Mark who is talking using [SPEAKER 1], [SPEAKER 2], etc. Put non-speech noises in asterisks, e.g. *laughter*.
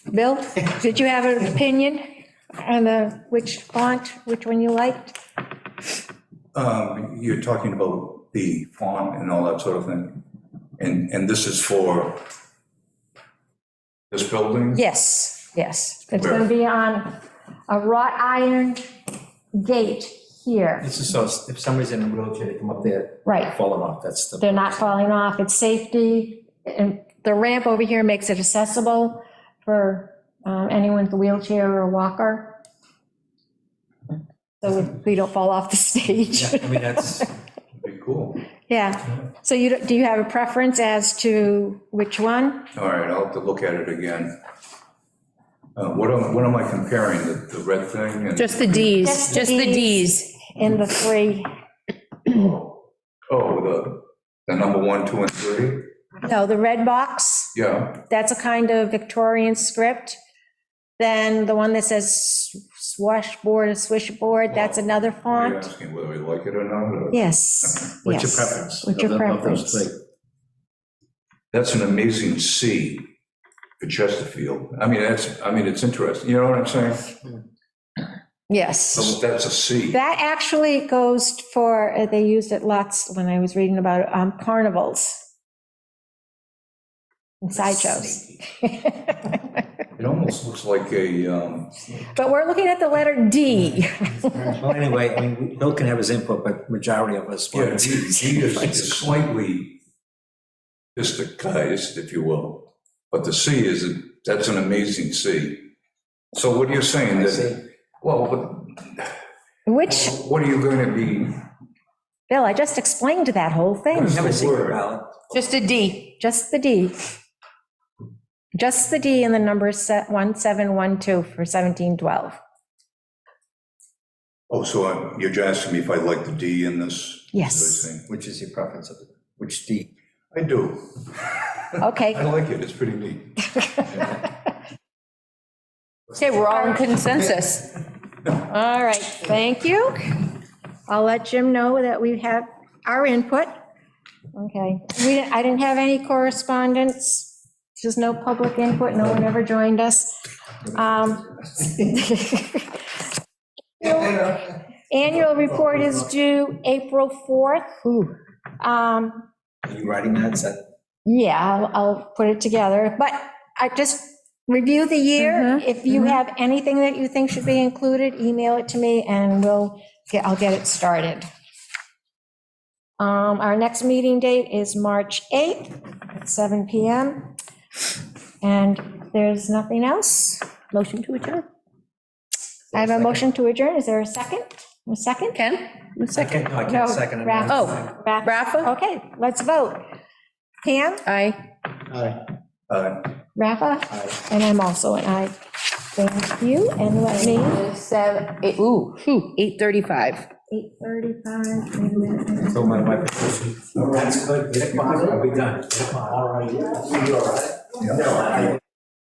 [SPEAKER 1] Bill, did you have an opinion on the, which font, which one you liked?
[SPEAKER 2] Um, You're talking about the font and all that sort of thing. And, and this is for this building?
[SPEAKER 1] Yes, yes. It's going to be on a wrought iron gate here.
[SPEAKER 3] This is so, if somebody's in a wheelchair, they come up there,
[SPEAKER 1] Right.
[SPEAKER 3] fall off, that's the.
[SPEAKER 1] They're not falling off. It's safety. And the ramp over here makes it accessible for um, anyone with a wheelchair or a walker. So we don't fall off the *laughs* stage.
[SPEAKER 3] Yeah, I
[SPEAKER 1] *laughs*
[SPEAKER 3] mean, that's,
[SPEAKER 2] Be cool.
[SPEAKER 1] Yeah. So you, don't- do you have a preference as to which one?
[SPEAKER 2] All right, I'll have to look at it again. Uh, What am, what am I comparing, the, the red thing? and-
[SPEAKER 4] Just the Ds,
[SPEAKER 1] Just the
[SPEAKER 4] just the
[SPEAKER 1] Ds.
[SPEAKER 4] Ds.
[SPEAKER 1] In the three,
[SPEAKER 2] Oh, the, the number one, two, and three?
[SPEAKER 1] no, the red box,
[SPEAKER 2] Yeah,
[SPEAKER 1] that's a kind of Victorian script. Then the one that says swashboard or swishboard, that's another
[SPEAKER 2] are you
[SPEAKER 1] font.
[SPEAKER 2] asking whether we like it or not? or-
[SPEAKER 1] Yes,
[SPEAKER 3] what's your
[SPEAKER 1] yes.
[SPEAKER 3] preference?
[SPEAKER 1] What's your
[SPEAKER 3] of the- of those
[SPEAKER 1] preference?
[SPEAKER 3] three?
[SPEAKER 2] That's an amazing C for Chesterfield. I mean, that's, I mean, it's interesting, you know what I'm saying?
[SPEAKER 1] Yes.
[SPEAKER 2] That's- That's a C.
[SPEAKER 1] That actually goes for, uh, they used it lots when I was reading about it, um, carnivals. And sideshows.
[SPEAKER 2] It almost looks like a, um,
[SPEAKER 1] But we're looking at the letter D.
[SPEAKER 3] Well, anyway, I mean, Bill can have his input, but majority of us.
[SPEAKER 2] yeah,
[SPEAKER 3] want
[SPEAKER 2] G
[SPEAKER 3] Ds.
[SPEAKER 2] G
[SPEAKER 3] *laughs*
[SPEAKER 2] is is slightly disguised, if you will. But the C is, a- that's an amazing C. So what are you saying?
[SPEAKER 3] I
[SPEAKER 2] That,
[SPEAKER 3] see.
[SPEAKER 2] well, what-
[SPEAKER 1] Which,
[SPEAKER 2] what are you going to be,
[SPEAKER 1] Bill, I just explained that whole thing.
[SPEAKER 3] Have a secret
[SPEAKER 2] Word.
[SPEAKER 3] ballot.
[SPEAKER 4] Just a D.
[SPEAKER 1] Just the D. Just the D in the number se- 1712 for 1712.
[SPEAKER 2] oh, so I'm- you're just asking me if I like the D in this?
[SPEAKER 1] Yes.
[SPEAKER 3] Which is your preference of, the- which D?
[SPEAKER 2] I do. I *laughs*
[SPEAKER 1] Okay,
[SPEAKER 2] like it, it's pretty neat.
[SPEAKER 4] Okay, we're all in consensus.
[SPEAKER 1] all right, thank you. I'll let Jim know that we have our input. Okay, we, didn't- I didn't have any correspondence, just no public input, no one ever joined us. Um, Annual report is due April 4th. Um,
[SPEAKER 3] Are you writing that? Is that-
[SPEAKER 1] Yeah, I'll, I'll put it together, but I just review the year.
[SPEAKER 4] Mhm,
[SPEAKER 1] If you
[SPEAKER 4] mhm.
[SPEAKER 1] have anything that you think should be included, email it to me and we'll, get- I'll get it started. Um, our next meeting date is March 8th at 7 PM. And there's nothing else.
[SPEAKER 4] Motion to adjourn.
[SPEAKER 1] I have a motion to adjourn. Is there a second? A second?
[SPEAKER 4] Ken? One second.
[SPEAKER 3] Second, no, I
[SPEAKER 1] No,
[SPEAKER 3] can't second it.
[SPEAKER 1] Raf-
[SPEAKER 4] Oh,
[SPEAKER 1] Ra-
[SPEAKER 4] Rafa?
[SPEAKER 1] Okay, let's vote. Pam,
[SPEAKER 4] Aye.
[SPEAKER 2] Uh,
[SPEAKER 1] Rafa, and I'm also an aye. Thank you, and let me.
[SPEAKER 4] Seven, eight, ooh, phew, 8:35.
[SPEAKER 1] 8:35, wait a minute.
[SPEAKER 3] So my wife. That's good. Get it, Bob. We're done. All right.
[SPEAKER 2] yeah.